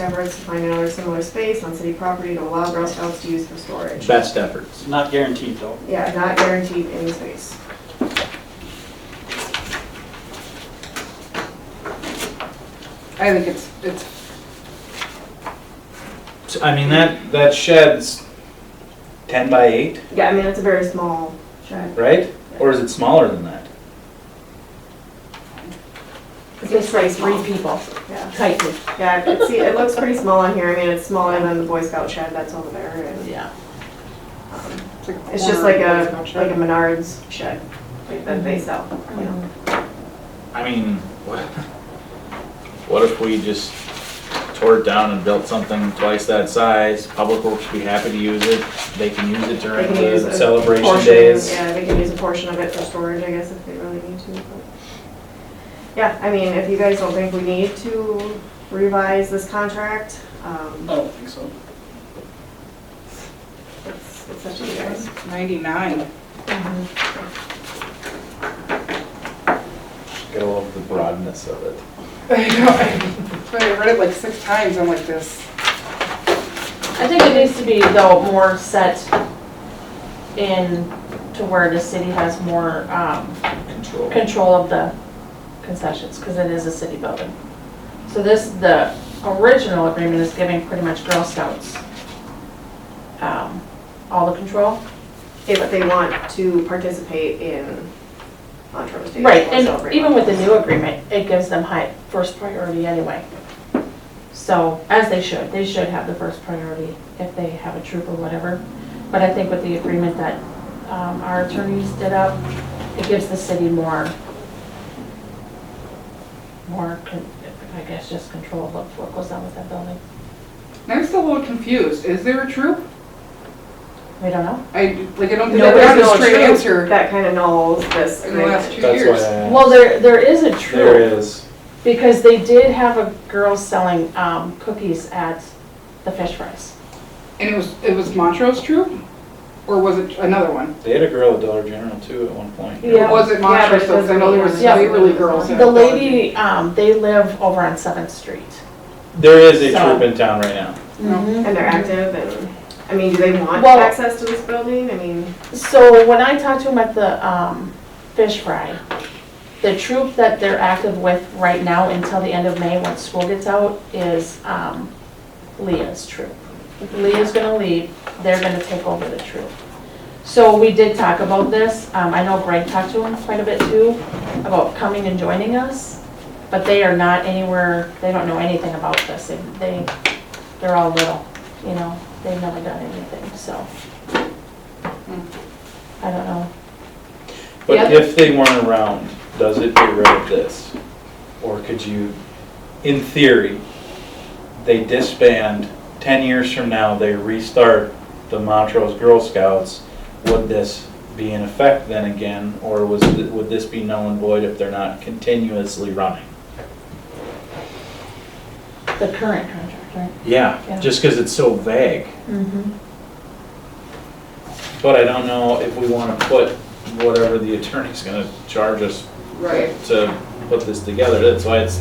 efforts to find another similar space on city property to allow Girl Scouts to use for storage. Best efforts. Not guaranteed though. Yeah, not guaranteed any space. I think it's, it's, So, I mean, that, That shed's ten by eight, Yeah, I mean, it's a very small shed. right? Or is it smaller than that? It's It's pretty like three small. people, Yeah, tightly, yeah, I can see, it looks pretty small on here. I mean, it's smaller than the Boy Scout shed that's over there. and, yeah. um, it's like. a It's just like corner of a, the like sculpture. a Menards shed, like that they sell, you know? I mean, what, what if we just tore it down and built something twice that size? Public Works would be happy to use it. They can use it They during can use the a celebration portion- days. Yeah, they can use a portion of it for storage, I guess, if they really need to. but- Yeah, I mean, if you guys don't think we need to revise this contract, um, I don't think so. it's it's up to you guys. Ninety-nine. Gotta love the broadness of it. I know. But I read it like six times, I'm like this. I think it needs to be though more set in to where the city has more, um, control. control of the concessions, because it is a city building. So this, the original agreement is giving pretty much Girl Scouts um, all the control. If they want to participate in Montrose Day. Right, or and celebrate even with the Montrose. new agreement, it gives them high, first priority anyway. So, as they should, they should have the first priority if they have a troop or whatever. But I think with the agreement that um, our attorneys did up, it gives the city more, more, con- I guess, just control of what goes on with that building. And I'm still a little confused, is there a troop? We don't know. I, like, I don't think No, I've there's gotten a no straight truth. answer That kind of nulls this in the last agreement. two That's years. why I, Well, there, there is a troop. there is. Because they did have a girl selling um, cookies at the fish fries. And it was, it was Montrose troop? Or was it another one? They had a girl at Dollar General too at one point. Yeah. Or was Yeah, it but Montrose it though, 'cause I know there was doesn't mean- Waverly girls. in The it. lady, um, they live over on Seventh Street. There is a So- troop in town right now. And they're active and, I mean, do they want Well- access to this building? I mean, So when I talked to them at the um, fish fry, the troop that they're active with right now until the end of May, when school gets out, is um, Leah's troop. Leah's gonna leave, they're gonna take over the troop. So we did talk about this, um, I know Greg talked to him quite a bit too, about coming and joining us, but they are not anywhere, they don't know anything about this, They- they, they're all little, you know, they've never done anything, so. I don't know, But Yeah. if they weren't around, does it get rid of this? Or could you, in theory, they disband, ten years from now, they restart the Montrose Girl Scouts, would this be in effect then again? Or was, th- would this be null and void if they're not continuously running? the current contract, right? Yeah, Yeah. just because it's so vague. Mm-hmm. But I don't know if we want to put whatever the attorney's gonna charge us Right. to put this together, that's why it's,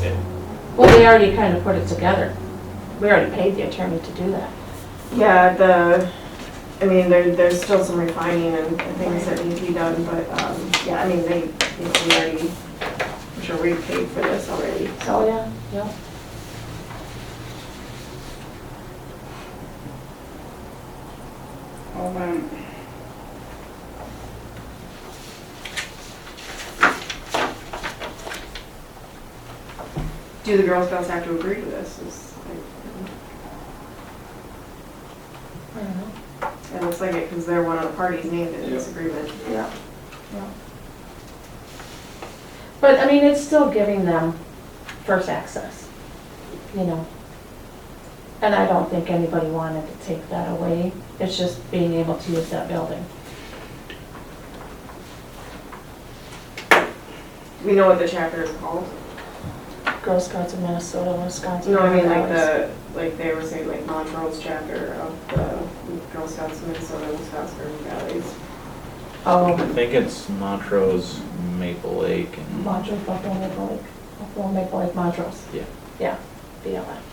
Well, they already kind of put it together. We already paid the attorney to do that. yeah, the, I mean, there, there's still some refining and and things that need to be done, but, um, yeah, I mean, they, you know, we already, I'm sure we paid for this already, Oh, so. yeah, yeah. Hold on. Do the Girl Scouts have to agree to this? Is- I don't know. It looks like it, because they're one of the parties named in this agreement. Yeah. But, I mean, it's still giving them first access, you know? And I don't think anybody wanted to take that away. It's just being able to use that building. We know what the chapter is called. Girl Scouts of Minnesota, Wisconsin. You know, I mean, like the, like they were saying, like Montrose chapter of the Girl Scouts of Minnesota, Wisconsin, Urban Valleys. Oh, I think it's Montrose, Maple Lake, and Montrose, Buffalo Maple Lake, Buffalo Maple Lake Montrose. Yeah. Yeah, BLM.